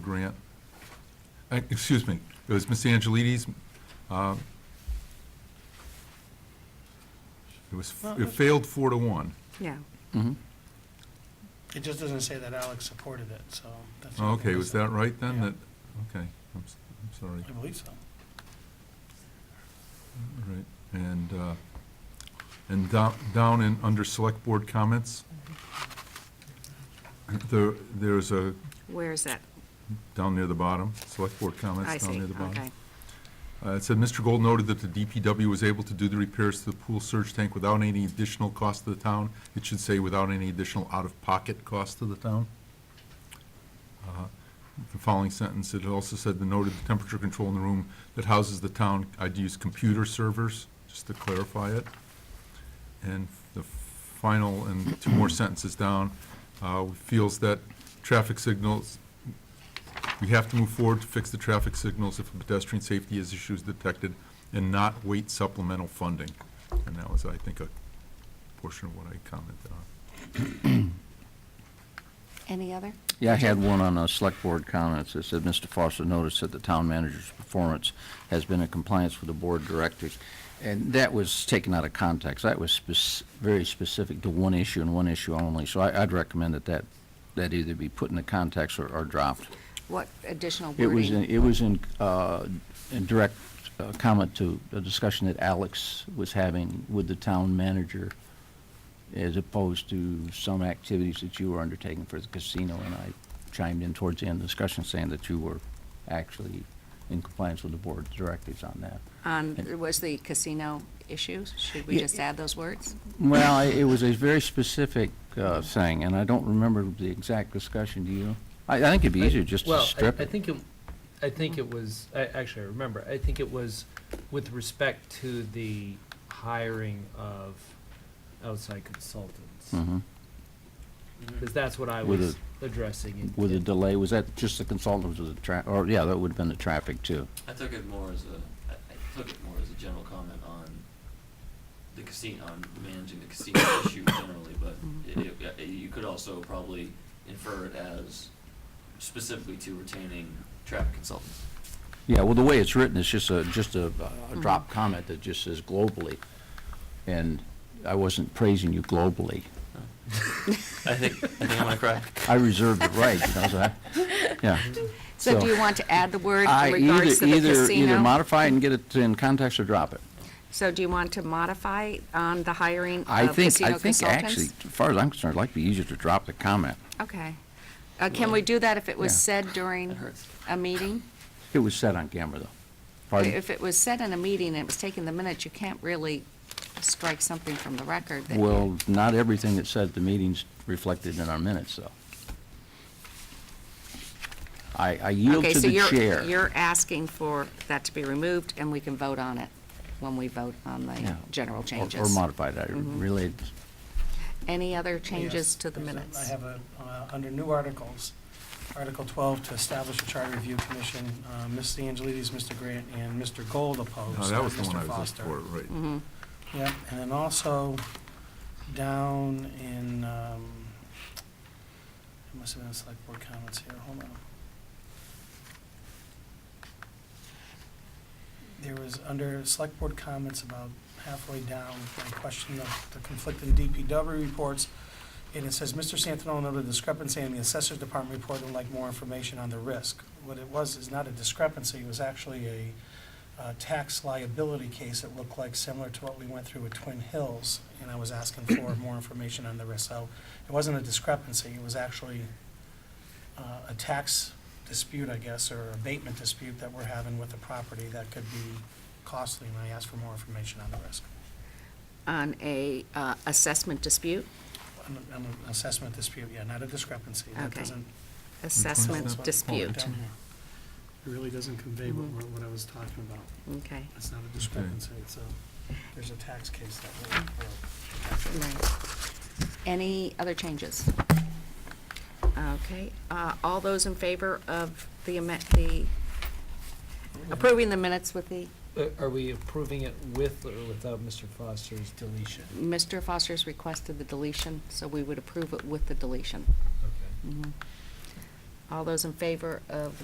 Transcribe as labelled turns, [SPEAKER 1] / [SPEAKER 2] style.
[SPEAKER 1] grant, Uh, excuse me, it was Ms. Angelides. uh, It was, it failed four to one.
[SPEAKER 2] Yeah,
[SPEAKER 3] Mm-hmm.
[SPEAKER 4] It just doesn't say that Alex supported it, so. that's the
[SPEAKER 1] Oh,
[SPEAKER 4] only
[SPEAKER 1] Okay,
[SPEAKER 4] thing
[SPEAKER 1] was
[SPEAKER 4] I
[SPEAKER 1] that right then?
[SPEAKER 4] Yeah.
[SPEAKER 1] That, okay, I'm, s- I'm sorry.
[SPEAKER 4] said. I believe so.
[SPEAKER 1] All right, and, uh, and down, down in, under select board comments, there, there's a,
[SPEAKER 2] where is that?
[SPEAKER 1] down near the bottom, select board
[SPEAKER 2] I
[SPEAKER 1] comments down
[SPEAKER 2] see,
[SPEAKER 1] near the bottom.
[SPEAKER 2] okay.
[SPEAKER 1] Uh, It said, "Mr. Gold noted that the DPW was able to do the repairs to the pool surge tank without any additional cost to the town." It should say, "Without any additional out-of-pocket cost to the town." Uh, The following sentence, it also said, "The noted the temperature control in the room that houses the town, I'd use computer servers," just to clarify it. And the final, and two more sentences down, uh, feels that traffic signals we have to move forward to fix the traffic signals if a pedestrian safety is issues detected and not wait supplemental funding. And that was, I think, a portion of what I commented on.
[SPEAKER 2] Any other?
[SPEAKER 3] Yeah, I had one on uh, Select Board comments. It said, "Mr. Foster noticed that the town manager's performance has been in compliance with the board directives." And that was taken out of context. That was spec- very specific to one issue and one issue only. So I- I'd recommend that that, that either be put into context or or dropped.
[SPEAKER 2] What additional
[SPEAKER 3] It was, in-
[SPEAKER 2] wording?
[SPEAKER 3] it was in, uh, in direct uh, comment to a discussion that Alex was having with the town manager as opposed to some activities that you were undertaking for the casino, and I chimed in towards the end of the discussion saying that you were actually in compliance with the board directives on that.
[SPEAKER 2] On, um, was the casino issues? Should we
[SPEAKER 3] Yeah.
[SPEAKER 2] just add those words?
[SPEAKER 3] Well, I- it was a very specific uh, thing, and I don't remember the exact discussion, do you? I, I think it'd be easier just to
[SPEAKER 5] Well, I-
[SPEAKER 3] strip
[SPEAKER 5] I
[SPEAKER 3] it.
[SPEAKER 5] think it, I think it was, I, actually, I remember, I think it was with respect to the hiring of outside consultants.
[SPEAKER 3] Mhm.
[SPEAKER 5] Because that's what I
[SPEAKER 3] With
[SPEAKER 5] was addressing. in-
[SPEAKER 3] With a
[SPEAKER 5] in-
[SPEAKER 3] delay, was that just the consultants or the tra, or, yeah, that would've been the traffic too.
[SPEAKER 6] I took it more as a, I, I took it more as a general comment on the casino, on managing the casino issue generally, but it, it, you could also probably infer it as specifically to retaining traffic consultants.
[SPEAKER 3] Yeah, well, the way it's written, it's just a, just a, a
[SPEAKER 2] Mm-hmm.
[SPEAKER 3] drop comment that just says globally. And I wasn't praising you globally.
[SPEAKER 6] I think, I think I'm gonna cry.
[SPEAKER 3] I reserve the right, you know, so I, yeah.
[SPEAKER 2] So do you want to add the word
[SPEAKER 3] I
[SPEAKER 2] in regards to
[SPEAKER 3] either-
[SPEAKER 2] the
[SPEAKER 3] either- Either
[SPEAKER 2] casino?
[SPEAKER 3] modify it and get it in context or drop it.
[SPEAKER 2] So do you want to modify on the hiring
[SPEAKER 3] I
[SPEAKER 2] of
[SPEAKER 3] think, I
[SPEAKER 2] Mm, uh, casino
[SPEAKER 3] think actually,
[SPEAKER 2] consultants?
[SPEAKER 3] as far as I'm concerned, it'd like be easier to drop the comment.
[SPEAKER 2] Okay. Uh, Can we do that if it was
[SPEAKER 3] Yeah.
[SPEAKER 2] said during
[SPEAKER 6] That hurts.
[SPEAKER 2] a meeting?
[SPEAKER 3] It was said on camera, though. Pardon?
[SPEAKER 2] If it was said in a meeting and it was taken the minutes, you can't really strike something from the record that you
[SPEAKER 3] Well, not everything that's said at the meeting's reflected in our minutes, though. I, I yield
[SPEAKER 2] Okay,
[SPEAKER 3] to
[SPEAKER 2] so
[SPEAKER 3] the chair.
[SPEAKER 2] you're, you're asking for that to be removed, and we can vote on it when we vote on the
[SPEAKER 3] Yeah.
[SPEAKER 2] general
[SPEAKER 3] Or-
[SPEAKER 2] changes.
[SPEAKER 3] Or modified, I
[SPEAKER 2] Mhm.
[SPEAKER 3] really,
[SPEAKER 2] Any other changes
[SPEAKER 4] Yes,
[SPEAKER 2] to the
[SPEAKER 4] there's a- I
[SPEAKER 2] minutes?
[SPEAKER 4] have a, uh, under new articles, Article 12, to establish a charter review commission, uh, Ms. Angelides, Mr. Grant, and Mr. Gold opposed.
[SPEAKER 1] No, Oh, that was the
[SPEAKER 4] not
[SPEAKER 1] one I
[SPEAKER 4] Oh, Mr.
[SPEAKER 1] was up
[SPEAKER 4] Foster.
[SPEAKER 1] for, right.
[SPEAKER 2] Mhm.
[SPEAKER 4] Yep, and then also down in, um, it must have been select board comments here, hold on. There was under select board comments about halfway down, a question of the conflicting DPW reports. And it says, Mr. Santino noted a discrepancy in the assessor's department report and would like more information on the risk. What it was is not a discrepancy, it was actually a, uh, tax liability case, it looked like similar to what we went through with Twin Hills, and I was asking for more information on the risk. So it wasn't a discrepancy, it was actually uh, a tax dispute, I guess, or abatement dispute that we're having with the property that could be costly, and I asked for more information on the risk.
[SPEAKER 2] On a uh, assessment dispute,
[SPEAKER 4] An an assessment dispute, yeah, not a discrepancy. That
[SPEAKER 2] Okay.
[SPEAKER 4] doesn't- that's
[SPEAKER 2] assessment
[SPEAKER 4] what it's called
[SPEAKER 2] dispute,
[SPEAKER 4] down here. It really doesn't convey what,
[SPEAKER 2] Mhm.
[SPEAKER 4] we're- what I was talking about.
[SPEAKER 2] okay.
[SPEAKER 4] It's not a discrepancy, it's a, there's a tax case that we're, we're
[SPEAKER 2] Right. Any other changes? Okay, uh, all those in favor of the, amen- the, approving the minutes with the,
[SPEAKER 5] Uh, Are we approving it with or without Mr. Foster's deletion?
[SPEAKER 2] Mr. Foster's requested the deletion, so we would approve it with the deletion.
[SPEAKER 5] Okay.
[SPEAKER 2] Mhm. All those in favor of